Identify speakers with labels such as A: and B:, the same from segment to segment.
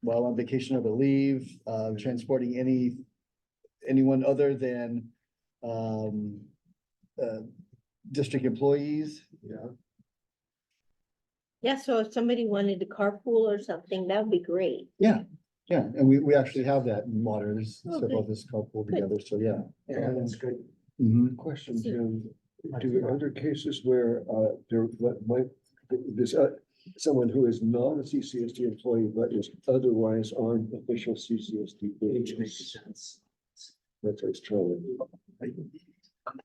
A: while on vacation or to leave, uh, transporting any, anyone other than, um, uh, district employees.
B: Yeah.
C: Yeah, so if somebody wanted to carpool or something, that would be great.
A: Yeah, and we, we actually have that in Waters, several of this couple together, so yeah.
B: Yeah, that's good.
A: Mhm.
B: Question, Jim, do under cases where uh there what might, this uh, someone who is not a CCSD employee but is otherwise on official CCSD.
D: Which makes
B: wages?
D: sense.
B: That's what it's trying.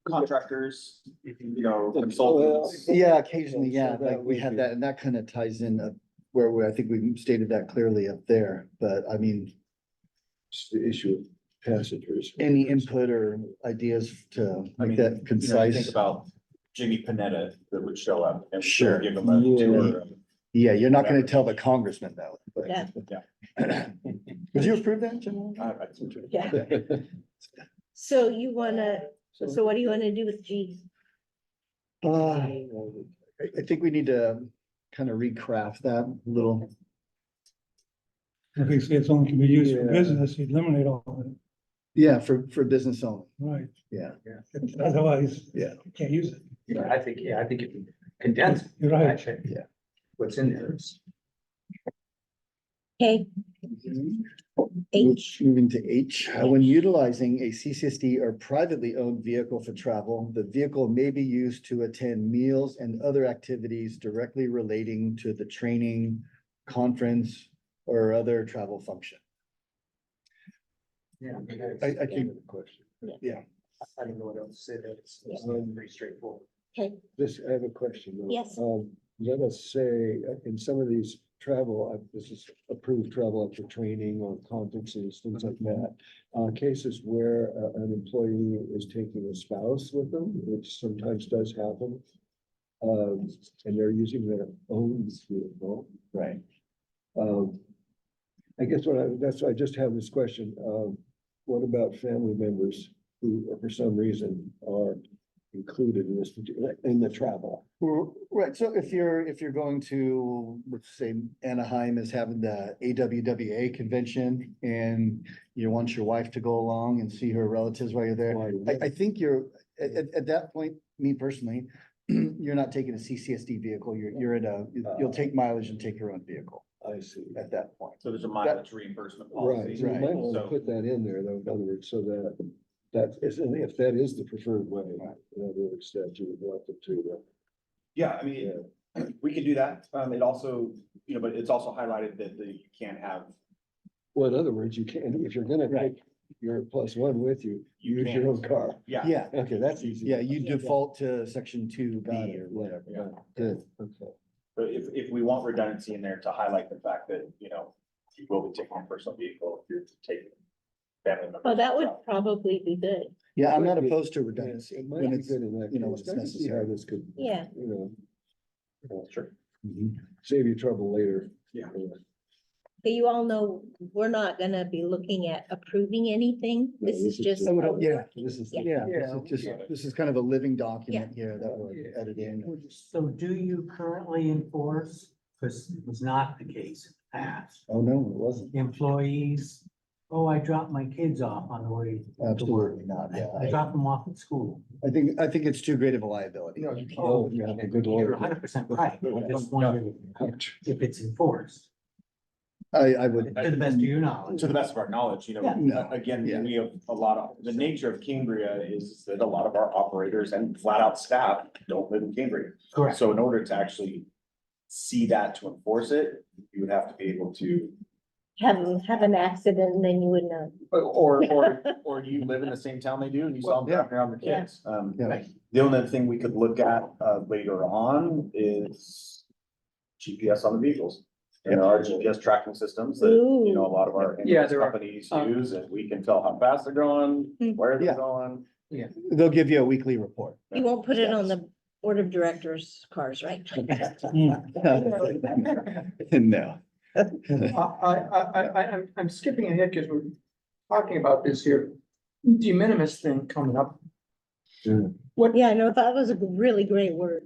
D: Contractors, you know,
B: Well,
D: consultants.
A: Yeah, occasionally,
B: So
A: yeah,
B: that
A: like we
B: would
A: had
B: be-
A: that, and that kind of ties in uh, where we, I think we stated that clearly up there, but I mean,
B: It's the issue of passengers.
A: any input or ideas to
D: I mean,
A: make
D: you know,
A: that
D: you Think
A: concise?
D: about Jimmy Panetta that would show up. and
A: Sure.
D: Give him a tour. of-
A: Yeah, you're not gonna tell the congressman though. but-
C: Yeah.
A: Would you approve that, Jim?
D: I- I-
C: Yeah. So you wanna, so what do you wanna do with G?
A: Uh, I, I think we need to kind of recraft that a little.
E: If you say it's only can be used for
B: Yeah.
E: business, you eliminate all of it,
A: Yeah, for, for business only.
E: right?
A: Yeah.
E: Otherwise.
A: Yeah.
E: You can't use it.
F: Yeah, I think, yeah, I think if you condense.
E: You're right.
F: actually,
A: Yeah.
F: What's in there is.
C: K,
A: Move-
C: H,
A: Moving to H, Uh, when utilizing a CCSD or privately owned vehicle for travel, the vehicle may be used to attend meals and other activities directly relating to the training, conference, or other travel function.
F: Yeah.
A: I, I think,
B: Question.
F: I don't know what else to say there. It's it's pretty straightforward.
C: K,
B: This, I have a question. though.
C: Yes.
B: Um, let us say, uh, in some of these travel, uh, this is approved travel for training or conferences, things like that. Uh, cases where uh, an employee is taking a spouse with them, which sometimes does happen. Um, and they're using their own vehicle.
A: right,
B: Um, I guess what I, that's, why I just have this question, um, what about family members who, uh, for some reason, are included in this, particular- in the travel?
A: R- right, so if you're, if you're going to, let's say Anaheim is having the AWWA convention and you want your wife to go along and see her relatives while you're there,
B: Why would-
A: I, I think you're, at, at, at that point, me personally, you're not taking a CCSD vehicle, you're, you're in a, you- you'll take mileage and take your own vehicle
B: I see.
A: at that point.
D: So there's a mileage reimbursement
B: Right,
D: policy.
B: so you might want to
D: So
B: put that in there, though, in other words, so that, that is, and if that is the preferred way, in other words, that you would want them to.
D: Yeah, I
B: uh,
D: mean,
B: yeah.
D: we could do that. Um, it also, you know, but it's also highlighted that the, you can't have,
B: Well, in other words, you can, if you're gonna
A: Right.
B: take your plus one with you,
D: You
B: use your
D: can't.
B: own car.
D: yeah.
A: Yeah,
B: Okay, that's easy.
A: yeah, you
B: do.
A: default to section two B
B: Got it,
A: or
B: yeah,
A: whatever.
B: yeah, good, okay.
D: But if, if we want redundancy in there to highlight the fact that, you know, you will be taking a personal vehicle if you're taking family members.
C: oh, that would
D: So,
C: probably be good,
A: Yeah, I'm
B: Might
A: not
B: be-
A: opposed to
B: Yeah,
A: redundancy.
B: It
A: when
B: might be
A: it's-
B: good in that
A: you know,
B: case,
A: when
B: I can
A: it's
B: see how
A: necessary.
B: this could.
C: Yeah.
B: You know. uh,
D: Sure.
B: Save you trouble later.
D: Yeah.
C: but you all know, we're not gonna be looking at approving anything,
B: No,
C: this is
B: this is
C: just.
B: just-
A: I would- yeah,
B: This is.
A: Yeah, this is just, this is kind of a living document here that we're
F: Yeah.
A: editing.
F: So do you currently enforce, because it was not the case in the past,
A: Oh, no, it wasn't.
F: employees, oh, I dropped my kids off on the way.
A: Absolutely not. Yeah,
F: I
A: I-
F: dropped them off at school.
A: I think, I think it's too great of a liability.
B: No, you can't. Oh, you have a good lawyer.
F: You're hundred percent right, I just wondered if it's enforced,
A: I, I
F: to
A: would,
F: the best of your knowledge.
D: To the best of our knowledge, you know,
A: no,
D: again,
A: Yeah.
D: we have a lot of, the nature of Cambria is that a lot of our operators and flat out staff don't live in Cambria.
F: Correct.
D: So in order to actually see that to enforce it, you would have to be able to,
C: Have, have an accident, and then you would know.
D: or, or, or you live in the same town they do and you saw them
A: Well, yeah.
D: driving around the
C: Yeah.
D: kids. Um,
A: Yeah.
D: the only other thing we could look at, uh, later on is GPS on the vehicles. And there are GPS tracking systems that, you know, a lot of our
F: Yeah, there are.
D: companies
F: Um,
D: use, and we can tell how fast they're going,
C: Hmm.
D: where
A: Yeah.
D: they're going.
A: they'll give you a weekly report.
C: You won't put it on the board of directors' cars, right?
E: Mm.
A: No.
G: I, I, I, I, I'm, I'm skipping ahead because we're talking about this here, de minimis thing coming up.
C: Yeah, I know, that was a really great word.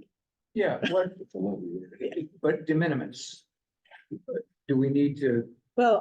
G: Yeah, what,
B: It's a lovely.
G: but de minimis. Do we need to